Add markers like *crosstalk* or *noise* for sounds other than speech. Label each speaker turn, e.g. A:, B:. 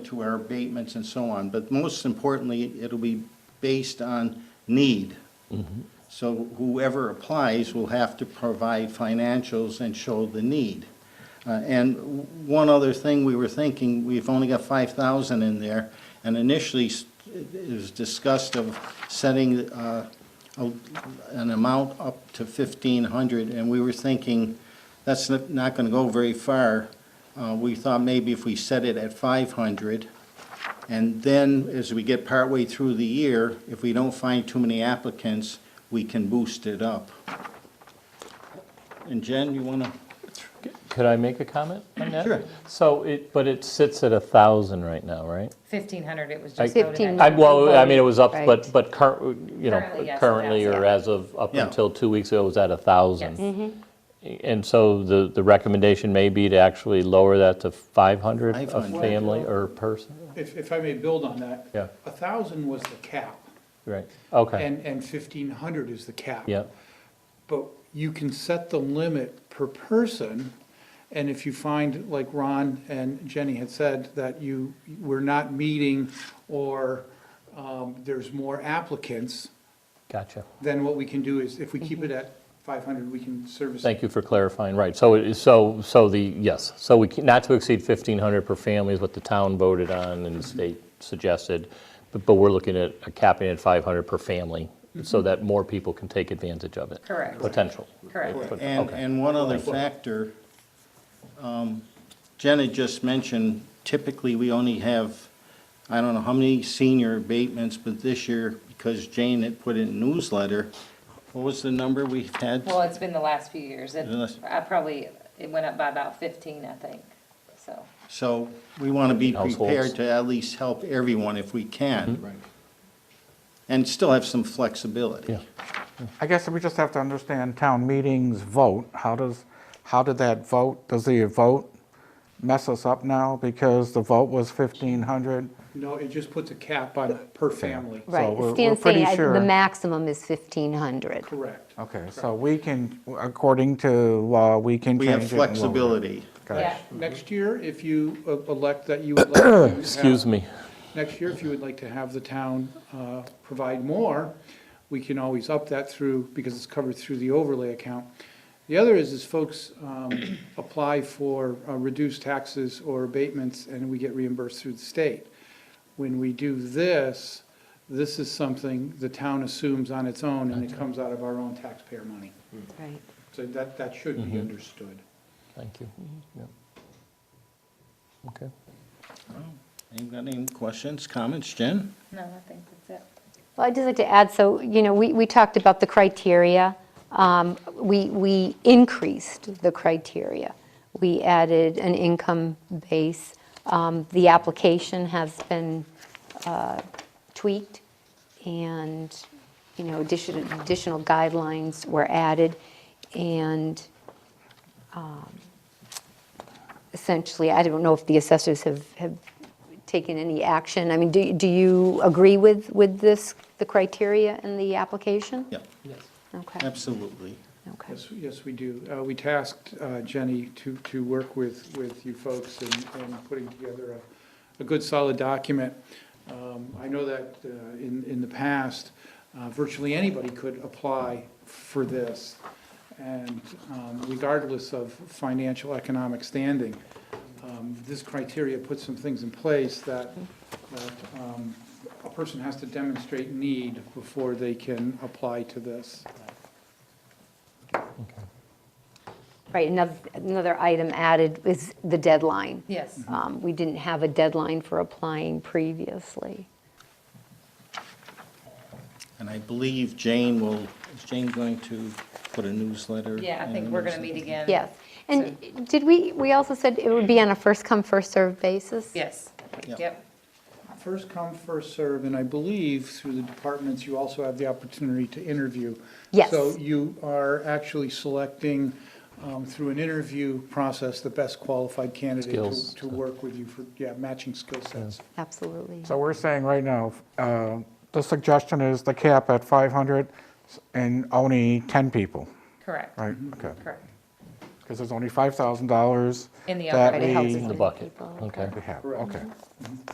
A: to our abatements and so on, but most importantly, it'll be based on need. So whoever applies will have to provide financials and show the need. Uh, And w- one other thing we were thinking, we've only got five thousand in there, and initially s- it was discussed of setting uh, a- an amount up to fifteen hundred, and we were thinking, that's n- not gonna go very far. Uh, We thought maybe if we set it at five hundred, and then, as we get partway through the year, if we don't find too many applicants, we can boost it up. And Jen, you wanna?
B: Could I make a comment on that?
A: Sure.
B: So it, but it sits at a 1,000 right now, right?
C: 1,500 it was
B: I-
C: just voted
D: 15.
C: at.
B: I- Well, I mean, it was up, but,
D: Right.
B: but current, you
C: Currently,
B: know,
C: yes,
B: currently or
C: yeah.
B: as of, up
A: Yeah.
B: until two weeks ago, it was at a 1,000.
C: Yes.
B: And so the, the recommendation may be to actually lower that to 500 a
A: 500.
B: family or person?
E: If, if I may build on that.
B: Yeah.
E: A thousand was the cap,
B: Right, okay,
E: and, and fifteen hundred is the cap.
B: yeah,
E: But you can set the limit per person, and if you find, like Ron and Jenny had said, that you, we're not meeting, or, um, there's more applicants,
B: gotcha.
E: then what we can do is, if we keep it at five hundred, we can service.
B: Thank you for clarifying, right, so, it is- so, so the, yes, so we, can- not to exceed 1,500 per family is what the town voted on and the state suggested, but, but we're looking at a capping at 500 per family, so that more people can take advantage of it.
C: Correct.
B: Potential.
C: Correct.
B: But-
A: And,
B: okay.
A: and one other factor, um, Jen had just mentioned, typically, we only have, I don't know how many senior abatements, but this year, because Jane had put in a newsletter, what was the number we had?
C: Well, it's been the last few years. It,
A: Yes.
C: I probably, it went up by about 15, I think, so.
A: So we want to be
B: Households. Mm-hmm.
A: prepared to at least help everyone if we can. Right. And still have some flexibility.
B: Yeah.
F: I guess we just have to understand town meetings vote. How does, how did that vote, does the vote mess us up now? Because the vote was 1,500.
E: No, it just puts a cap on, per family,
F: So
D: Right,
F: we're- we're
D: Stan's saying
F: pretty
D: I-
F: sure-
D: the maximum is 1,500.
E: correct.
F: Okay, so we can, according to law, we can
A: We
F: change it.
A: have
F: and lower it.
A: flexibility.
F: Gotcha.
C: Yeah.
E: Next year, if you uh, elect that
B: *coughs*
E: you would like. to have-
B: Excuse me.
E: Next year, if you would like to have the town uh, provide more, we can always up that through, because it's covered through the overlay account. The other is, is folks um, apply for uh, reduced taxes or abatements, and we get reimbursed through the state. When we do this, this is something the town assumes on its own, and it comes out of our own taxpayer money.
D: Right.
E: So that, that should be understood.
B: Thank you. Yeah. Okay.
A: Ain't got any questions, comments, Jen?
C: No, I think that's it.
D: Well, I'd just like to add, so, you know, we, we talked about the criteria. Um, We, we increased the criteria. We added an income base. Um, The application has been uh, tweaked, and, you know, addition- additional guidelines were added, and um, essentially, I don't know if the assessors have, have taken any action. I mean, do, do you agree with, with this, the criteria in the application?
A: Yeah,
D: Okay,
A: absolutely.
D: okay.
E: Yes, yes, we do. Uh, We tasked uh, Jenny to, to work with, with you folks in, in putting together a, a good solid document. Um, I know that uh, in, in the past, uh, virtually anybody could apply for this. And um, regardless of financial economic standing, um, this criteria puts some things in place that, that um, a person has to demonstrate need before they can apply to this.
D: Right, another, another item added is the deadline.
C: Yes.
B: Mm-hmm.
D: Um, We didn't have a deadline for applying previously.
A: And I believe Jane will, is Jane going to put a newsletter?
C: Yeah, I
A: in
C: think
A: the
C: we're going to
A: newsletter?
C: meet again.
D: Yes, and did we, we also said it would be on a first-come, first-served basis?
C: Yes,
A: Yep.
C: yep.
E: First come, first serve, and I believe through the departments, you also have the opportunity to interview.
D: Yes.
E: So you are actually selecting, um, through an interview process, the best qualified candidate
B: Skills.
E: to, to work with you for, yeah, matching skill sets.
D: Absolutely.
F: So we're saying right now, uh, the suggestion is the cap at 500 and only 10 people,
C: Correct,
F: right? Okay,
C: correct.
F: because there's only $5,000.
C: In the
F: that
C: already
D: Already
F: we-
D: houses
B: The
D: with
B: bucket,
D: people,
B: okay.
F: We have, okay.